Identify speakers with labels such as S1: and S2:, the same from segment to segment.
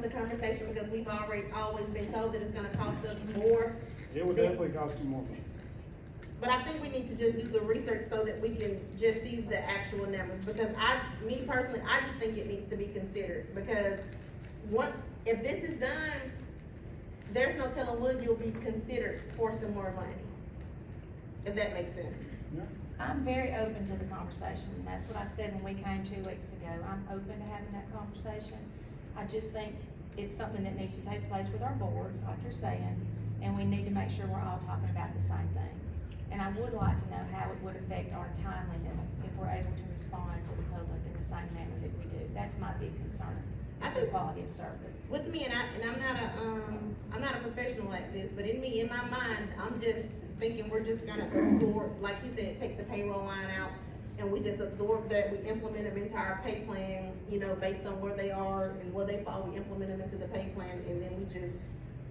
S1: the conversation because we've already, always been told that it's gonna cost us more.
S2: It would
S1: than-
S2: definitely cost you more money.
S1: But I think we need to just do the research so that we can just see the actual numbers, because I, me personally, I just think it needs to be considered, because once, if this is done, there's no telling when you'll be considered for some more money. If that makes sense.
S3: I'm very open to the conversation, and that's what I said when we came two weeks ago, I'm open to having that conversation. I just think it's something that needs to take place with our boards, like you're saying, and we need to make sure we're all talking about the same thing. And I would like to know how it would affect our timeliness if we're able to respond to the public in the same manner that we do. That's my big concern,
S1: I
S3: is the
S1: think-
S3: quality of service.
S1: With me, and I, and I'm not a, um, I'm not a professional at this, but in me, in my mind, I'm just thinking we're just gonna absorb, like you said, take the payroll line out, and we just absorb that, we implement them into our pay plan, you know, based on where they are and where they fall, we implement them into the pay plan, and then we just,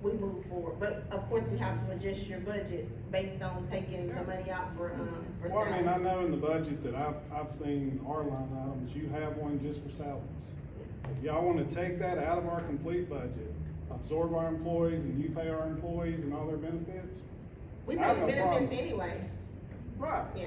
S1: we move forward, but of course, we have to adjust your budget based on taking the money out for, um, for
S2: Well, I mean, I
S1: salaries.
S2: know in the budget that I've, I've seen our line items, you have one just for salaries. If y'all wanna take that out of our complete budget, absorb our employees and you pay our employees and all their benefits,
S1: We
S2: I have
S1: pay
S2: no problem.
S1: benefits anyway,
S2: right.
S1: yeah,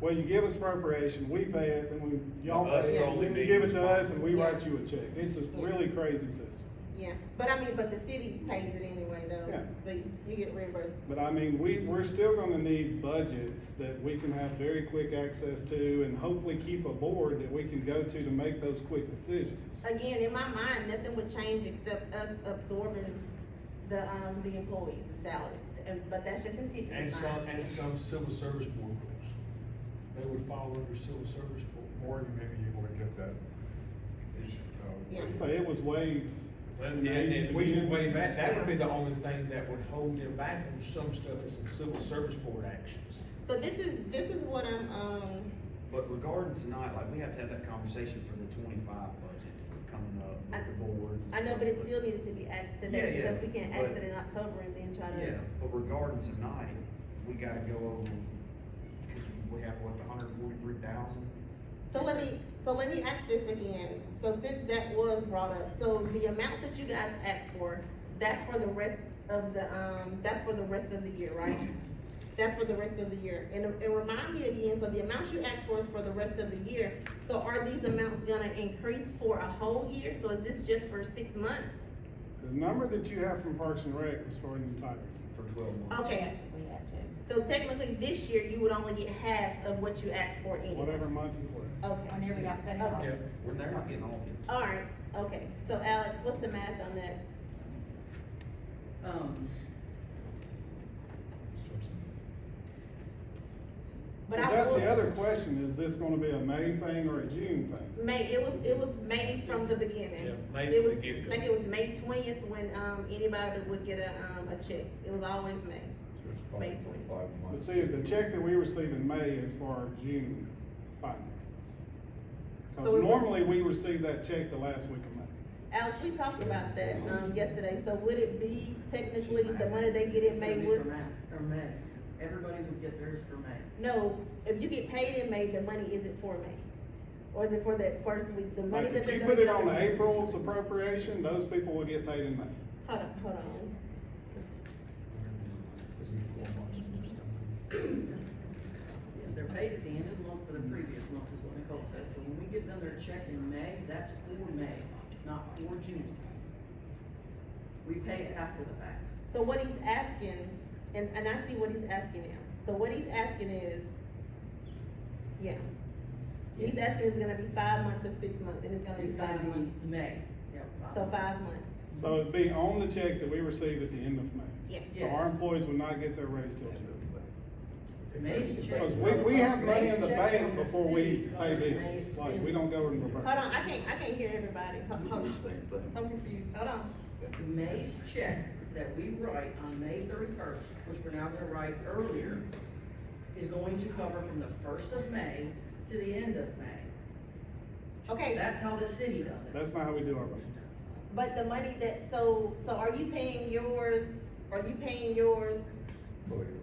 S2: Well, you give us appropriation, we pay it, then we, y'all
S4: Us
S2: pay it, then
S4: solely
S2: you
S4: being
S2: give it to us and we
S1: responsible.
S2: write you a check. It's a really crazy system.
S1: yeah, but I mean, but the city pays it anyway though,
S2: Yeah.
S1: so you- you get reimbursed.
S2: But I mean, we, we're still gonna need budgets that we can have very quick access to and hopefully keep a board that we can go to to make those quick decisions.
S1: Again, in my mind, nothing would change except us absorbing the, um, the employees, the salaries, and, but that's just in
S4: And
S1: Tiffany's
S4: some,
S1: mind.
S4: and some civil service board rules. They would follow under civil service board.
S5: Or you may be able to get that issue,
S1: Yeah.
S5: uh,
S2: I'd say it was waived.
S4: And, and if we could waive that, that would be the only thing that would hold them back on some stuff is some civil service board actions.
S1: So this is, this is what I'm, um,
S6: But regarding tonight, like, we have to have that conversation for the twenty-five budget for coming up
S1: I-
S6: with the board. and
S1: I know,
S6: stuff,
S1: but it still needed to be asked today,
S6: Yeah, yeah,
S1: because we can't ask
S6: but-
S1: it in October and then try
S6: Yeah,
S1: to.
S6: but regarding tonight, we gotta go over, cause we have, what, the hundred and forty-three thousand?
S1: So let me, so let me ask this again, so since that was brought up, so the amounts that you guys asked for, that's for the rest of the, um, that's for the rest of the year, right? That's for the rest of the year, and, and remind me again, so the amounts you asked for is for the rest of the year, so are these amounts gonna increase for a whole year, so is this just for six months?
S2: The number that you have from Parks and Rec was for an entire.
S6: For twelve months.
S1: Okay,
S3: That's what we have to.
S1: so technically this year, you would only get half of what you asked for in.
S2: whatever months is left.
S1: Okay,
S3: Whenever y'all cut it off.
S4: Yeah.
S6: When they're not getting all of it.
S1: alright, okay, so Alex, what's the math on that?
S7: Um,
S1: But
S2: Cause
S1: I
S2: that's the
S1: will-
S2: other question, is this gonna be a May thing or a June thing?
S1: May, it was, it was May from the beginning.
S4: Yeah, May
S1: It was-
S4: from the get-go.
S1: I think it was May twentieth when, um, anybody would get a, um, a check. It was always May.
S5: so it's probably
S1: May 20.
S5: five
S2: But
S5: months.
S2: see, the check that we receive in May is for our June finances.
S1: So we-
S2: Cause normally we receive that check the last week of May.
S1: Alex, we talked about that, um, yesterday, so would it be technically the money they get
S7: it's
S1: in
S7: gonna
S1: May
S7: be for
S1: would?
S7: May, or May, everybody would get theirs for May.
S1: No, if you get paid in May, the money isn't for May. Or is it for that first week, the money
S2: Like,
S1: that
S2: if
S1: they're
S2: you
S1: gonna
S2: put
S1: get?
S2: it on the April's appropriation, those people will get paid in May.
S1: Hold on, hold on.
S7: Yeah, They're paid at the end of the month for the previous month is what Nicole said, so when we get another check in May, that's for May, not for June. We pay it after the fact.
S1: So what he's asking, and, and I see what he's asking now, so what he's asking is, yeah. He's asking it's gonna be five months or six months, and it's gonna be
S7: It's gonna
S1: five months,
S7: be May. Yeah,
S1: so five months,
S2: So it'd be on the check that we receive at the end of May.
S1: yeah.
S2: So our employees would not get their raise till June.
S7: May's check.
S2: Because we, we have money in the
S7: May's check
S2: bank
S7: from the
S2: before we
S7: city
S2: pay
S7: goes to May's
S2: bills, like, we
S7: bills.
S2: don't go in reverse.
S1: Hold on, I can't, I can't hear everybody, Ho- hold, I'm confused, hold on,
S7: May's check that we write on May thirty-first, which we're now gonna write earlier, is going to cover from the first of May to the end of May.
S1: okay,
S7: That's how the city does it.
S2: That's not how we do our budget.
S1: but the money that, so, so are you paying yours, are you paying yours,
S5: Probably arrears.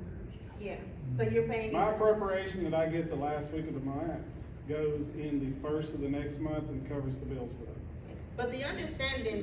S1: yeah, so you're paying,
S2: My appropriation that I get the last week of the month goes in the first of the next month and covers the bills for that.
S1: but the understanding